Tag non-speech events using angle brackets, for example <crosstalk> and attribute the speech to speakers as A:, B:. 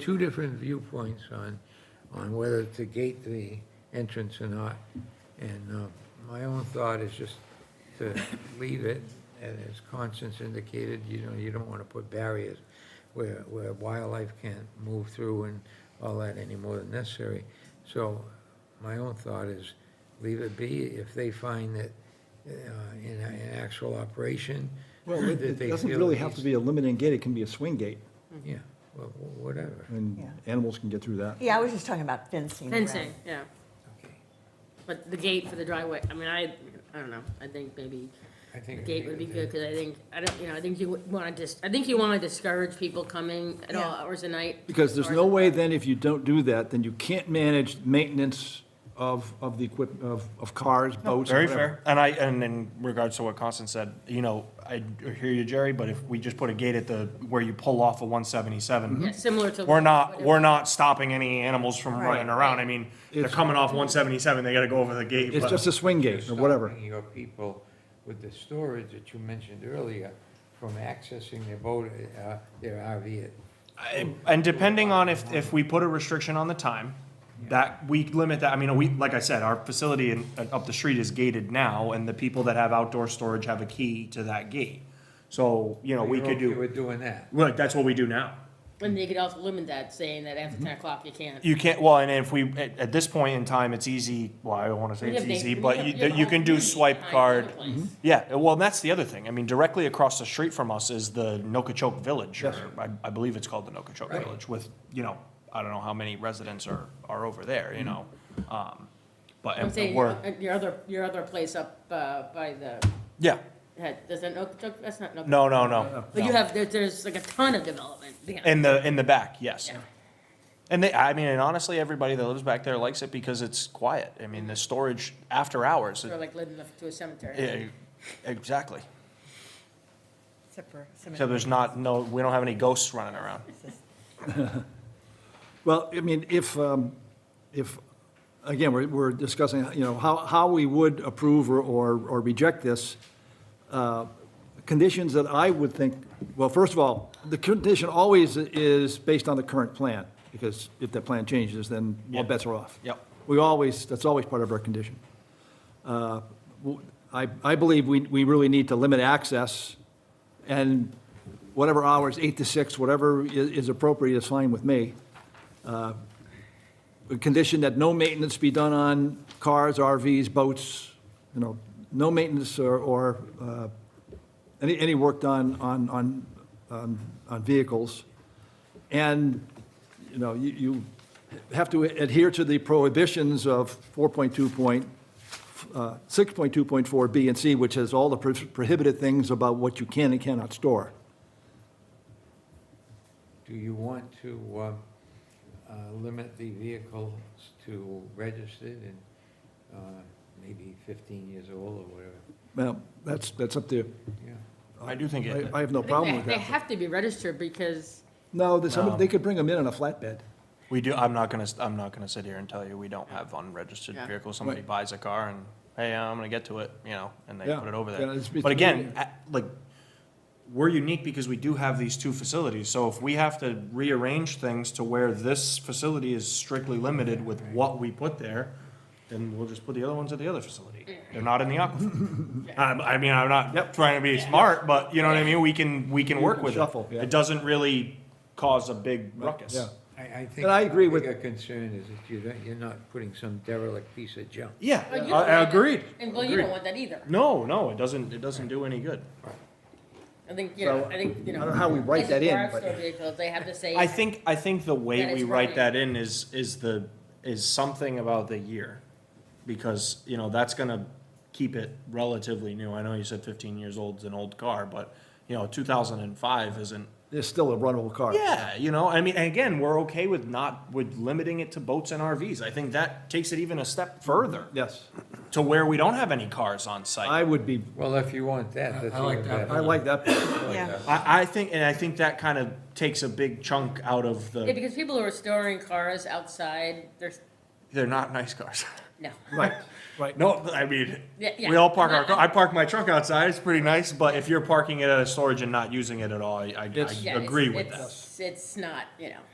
A: two different viewpoints on, on whether to gate the entrance or not. And uh, my own thought is just to leave it, and as Constance indicated, you know, you don't want to put barriers where, where wildlife can't move through and all that any more than necessary. So my own thought is leave it be. If they find that uh, in, in actual operation,
B: Well, it-
A: that
B: it
A: they
B: doesn't
A: feel
B: really
A: it
B: have to
A: needs-
B: be a limiting gate, it can be a swing gate,
C: Mm-hmm.
A: yeah, well, wh- whatever.
B: and
D: Yeah.
B: animals can get through that.
D: Yeah, I was just talking about fencing. around.
C: Fencing, yeah,
A: Okay.
C: but the gate for the driveway, I mean, I, I don't know, I think maybe
A: I
C: a
A: think. it
C: gate would be
A: a-
C: good, cause I think, I don't, you know, I think you wanna dis, I think you wanna discourage people coming at all
D: Yeah.
C: hours of night.
B: Because there's
C: Or-
B: no way then, if you don't do that, then you can't manage maintenance of, of the equip, of, of cars, boats,
E: Very
B: whatever.
E: fair. And I, and in regards to what Constance said, you know, I hear you, Jerry, but if we just put a gate at the, where you pull off of
C: Yeah,
E: one
B: Mm-hmm.
E: seventy-seven,
C: similar to.
E: we're not, we're not stopping any animals from
D: Right.
E: running around. I mean, they're
B: It's-
E: coming off one seventy-seven, they gotta go over the gate.
B: It's
E: but-
B: just a swing
A: You're
B: gate, or whatever.
A: stopping Your people with the storage that you mentioned earlier from accessing their boat, uh, their RV.
E: I- And depending on if, if we put a restriction on the time, that, we limit that, I mean, we, like I said, our facility in, uh, up the street is gated now, and the people that have outdoor storage have a key to that gate. So, you know, we could
A: We're
E: do,
A: doing that.
E: look, that's what we do now.
C: And they could also limit that, saying that after ten o'clock you can't.
E: You can't, well, and if we, at, at this point in time, it's easy, well, I don't wanna say
C: We
E: it's
C: have
E: easy,
C: ba- we
E: but
C: have-
E: you,
C: we have
E: that you
C: all
E: can do
C: community
E: swipe
C: behind
E: card.
C: other place.
B: Mm-hmm.
E: Yeah, well, and that's the other thing, I mean, directly across the street from us is the Nokachoke Village, or I, I believe it's called the Nokachoke
A: Right.
E: Village, with, you know, I don't know how many residents are, are over there, you know? Um, But,
C: I'm
E: and
C: saying,
E: we're,
C: uh, your other, your other place up, uh, by the,
E: yeah,
C: had- does that, Nook- that's not. Nook-
E: no, no, no.
C: But you
E: no.
C: have, there, there's like a ton of development, yeah.
E: In the, in the back, yes.
C: Yeah.
E: And they, I mean, and honestly, everybody that lives back there likes it because it's quiet, I mean, the storage after hours, it-
C: Sort of like living up to a cemetery.
E: Yeah, E-, exactly.
D: Except for
E: So
D: cemetery.
E: there's not, no, we don't have any ghosts running around.
B: Well, I mean, if, um, if, again, we're, we're discussing, you know, how, how we would approve or, or or reject this, uh, conditions that I would think, well, first of all, the condition always is based on the current plan, because if that plan changes, then all
E: Yeah.
B: bets are off.
E: Yep.
B: We always, that's always part of our condition. Uh, w- I, I believe we, we really need to limit access, and whatever hours, eight to six, whatever i- is appropriate is fine with me. Uh, A condition that no maintenance be done on cars, RVs, boats, you know, no maintenance or, or uh, any, any work done on, on, on- on vehicles. And, you know, you, you have to adhere to the prohibitions of 4.2 point, uh, 6.2.4 B and C, which has all the pro- prohibited things about what you can and cannot store.
A: Do you want to, uh, uh, limit the vehicles to registered and, uh, maybe fifteen years old or whatever?
B: Well, that's, that's up to you.
A: Yeah.
E: I do think
B: I
E: it,
B: I have no
C: I think
B: problem
C: they-
B: with
C: They <laughs>
B: that.
C: have to be registered because
B: No, there's some-
E: No.
B: they could bring them in on a flatbed.
E: we do, I'm not gonna, I'm not gonna sit here and tell you we don't have unregistered
C: Yeah.
E: vehicles. Somebody
B: Right.
E: buys a car and, hey, I'm gonna get to it, you know, and they
B: Yeah.
E: put it over
B: Yeah, it's-
E: there.
B: it's
E: But again,
B: really-
E: at- like, we're unique because we do have these two facilities. So if we have to rearrange things to where this facility is strictly limited with what we put there, then we'll just put the other ones at the other facility. They're not in the aquifer. Um, I mean, I'm not trying to be smart, but you know what I mean? We can, we can
B: You
E: work
B: can
E: with it.
B: shuffle, yeah.
E: It doesn't really cause a big ruckus.
B: Yeah.
A: I, I think.
B: And I agree with-
A: Your concern is that you don't, you're not putting some derelict piece of junk.
E: Yeah,
C: Well, Oh, you
E: I-
C: don't
E: I
C: want that.
E: agreed.
C: And well, you
E: Agreed.
C: don't want that either.
E: No, no, it doesn't, it doesn't do any good.
C: I think, you know,
B: So,
C: I think, you know.
B: I don't know how we write that
C: places
B: in,
C: where I've
B: but-
C: stored vehicles, they have to say.
E: I think, I think the way
C: That
E: we
C: it's
E: write
C: right.
E: that in is, is the, is something about the year. Because, you know, that's gonna keep it relatively new. I know you said fifteen years old's an old car, but, you know, two thousand and five isn't.
B: There's still a runnable car.
E: Yeah, you know, I mean, and again, we're okay with not, with limiting it to boats and RVs. I think that takes it even a step further
B: Yes,
E: to where we don't have any cars on site.
B: I would be,
A: Well, if you want that, that's.
F: I like
A: even
F: that.
A: better.
B: I like that.
D: Yeah,
E: I, I think, and I think that kind of takes a big chunk out of
C: Yeah,
E: the,
C: because people who are storing cars outside, there's,
E: they're not nice cars. <laughs>
C: no.
B: Right, right.
E: No, I mean,
C: Yeah, yeah.
E: we all park
C: <laughs>
E: our, car- I park my truck outside, it's pretty nice, but if you're parking it at a storage and not using it at all, I, I-
B: It's-
E: I
C: Yeah, it's-
E: agree with that.
C: it's- It's not, you know.